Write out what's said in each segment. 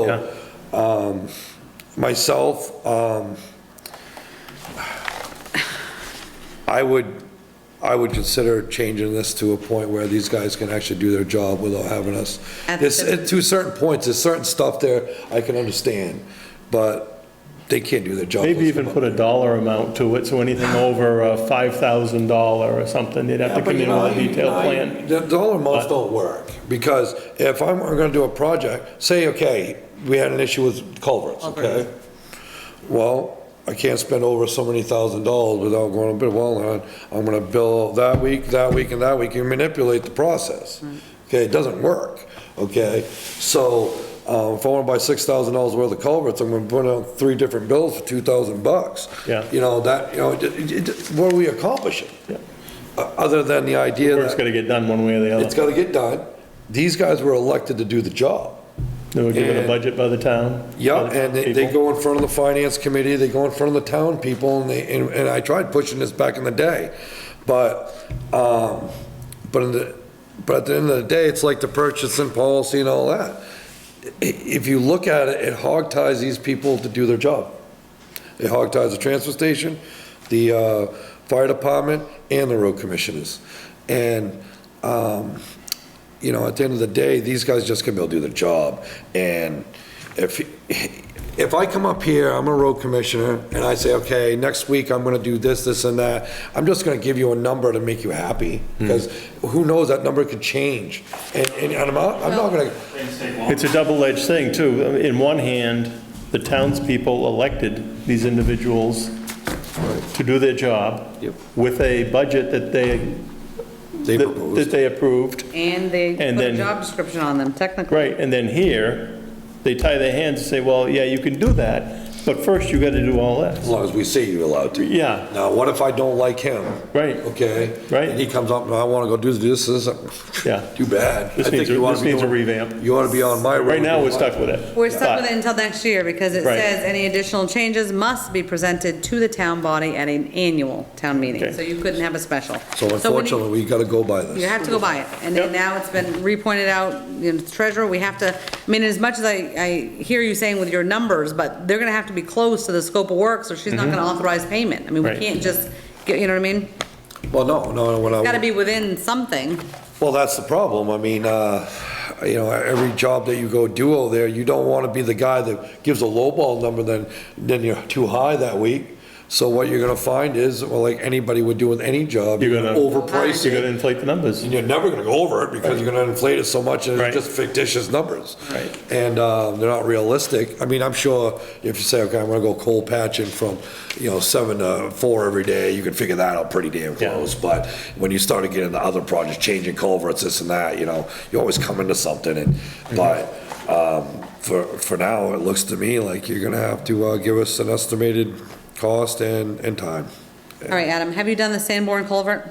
Yeah. um, Myself, um, I would, I would consider changing this to a point where these guys can actually do their job without having us. At There's, the- to certain points, there's certain stuff there I can understand, but they can't do their job. Maybe even put a dollar amount to it, so anything over uh, $5,000 or something, they'd have to come in with a detailed plan. The dollar amounts don't work, because if I'm gonna do a project, say, okay, we had an issue with culverts, okay? Well, I can't spend over so many thousand dollars without going, but well, uh, I'm gonna bill that week, that week, and that week, you manipulate the process. Okay, it doesn't work, okay? So, um, if I wanna buy six thousand dollars worth of culverts, I'm gonna put out three different bills for two thousand bucks. Yeah. You know, that, you know, it- it- it- what are we accomplishing? Yeah. O- Uh, Other than the idea that. Work's gotta get done one way or the It's other. gotta get done. These guys were elected to do the job. They were given a Yeah. budget by the town. Yeah, by the and they, they people. go in front of the finance committee, they go in front of the town people, and they, and, and I tried pushing this back in the day. But, um, but in the, but at the end of the day, it's like the purchasing policy and all that. I- If you look at it, it hog ties these people to do their job. It hog ties the transfer station, the, uh, fire department, and the road commissioners. And, um, you know, at the end of the day, these guys just can be able to do their job. And if, if I come up here, I'm a road commissioner, and I say, okay, next week I'm gonna do this, this and that, I'm just gonna give you a number to make you happy, Hmm. because who knows, that number could change. And, and I'm not, I'm not gonna, It's a double-edged thing, too. In one hand, the townspeople elected these individuals to do their job Yep. with a budget that they, they that that proposed. they approved. And they And put a then- job description on them technically. Right, and then here, they tie their hands and say, well, yeah, you can do that, but first you gotta do all As this. long as we say you're allowed to. Yeah. Now, what if I don't like him? Right. Okay? Right. And he comes up, and I wanna go do this, this, Yeah. too bad. This I think needs a- you ought to this be needs a doing- revamp. You ought to be on my road. Right now, we're with my- stuck with it. We're stuck with But- it until next year because it Right. says any additional changes must be presented to the town body at an annual town meeting. Okay. So you couldn't have a special. So when you- unfortunately, we gotta go by You this. have to go buy it. And then Yep. now it's been repointed out, you know, treasurer, we have to, I mean, as much as I, I hear you saying with your numbers, but they're gonna have to be close to the scope of work, so she's not gonna authorize payment. I mean, we Mm-hmm. Right. can't just, get you know what I mean? Well, no, no, when I. Gotta be within something. Well, that's the problem. I mean, uh, you know, every job that you go do over there, you don't want to be the guy that gives a lowball number, then, then you're too high that week. So what you're gonna find is, well, like anybody would do with any job, You're you're gonna- gonna overprice You're it. gonna inflate the numbers. And you're never gonna go over it because you're gonna inflate it so much and Right. it's just fictitious numbers. Right. And, um, they're not realistic. I mean, I'm sure if you say, okay, I'm gonna go coal patching from, you know, seven to four every day, you can figure that out pretty damn Yeah. close. But when you start to get into other projects, changing culverts, this and that, you know, you always come into something and, Mm-hmm. but, um, for, for now, it looks to me like you're gonna have to, uh, give us an estimated cost and, and time. All right, Adam, have you done the Sanborn culvert?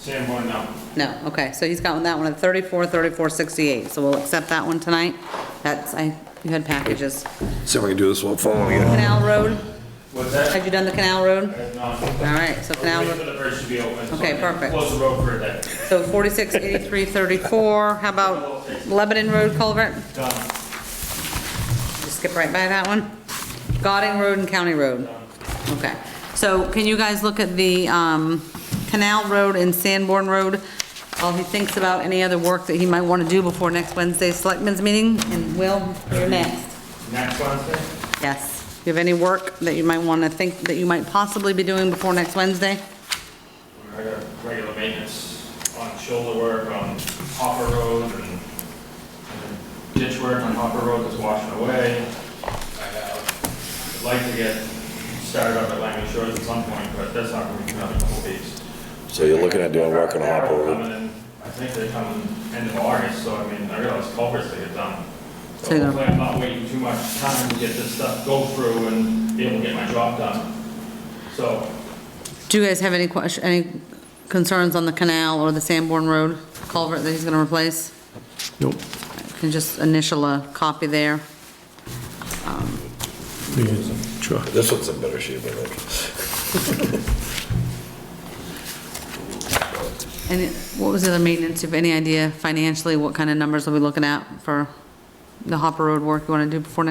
Sanborn, no. No, okay, so he's got that one at 34, 34, 68, so we'll accept that one tonight. That's, I, you had packages. See if I can do this one following again. Canal Road, What's that? have you done the Canal Road? I've not. All right, so Canal, Wait for Road. the bridge to be open. so Okay, I can perfect. Close the road for a day. so 46, 83, 34, how about Lebanon Road culvert? Done. Just skip right by that one. Godding Road and County Road. Okay, so can you guys look at the um, Canal Road and Sanborn Road while he thinks about any other work that he might want to do before next Wednesday's Selectmen's meeting? And Will, you're next. Next Wednesday? Yes. Do you have any work that you might want to think, that you might possibly be doing before next Wednesday? I got regular maintenance on shoulder work on Hopper Road and and ditch work on Hopper Road that's washing away. I have, I'd like to get started up at Langley Shores at some point, but that's not gonna be another couple weeks. So you're looking at doing work on Hopper Road? Coming in- I think they come in end of August, so I mean, I realize culverts they get done. So So you're- hopefully I'm not waiting too much time to get this stuff go through and be able to get my job done. So, Do you guys have any question, any concerns on the canal or the Sanborn Road culvert that he's going to replace? Nope. Can just initial a copy there. Um, Sure. This one's in better shape, I think. And it- what was the other maintenance? If any idea financially, what kind of numbers are we looking at for the Hopper Road work you want to do before next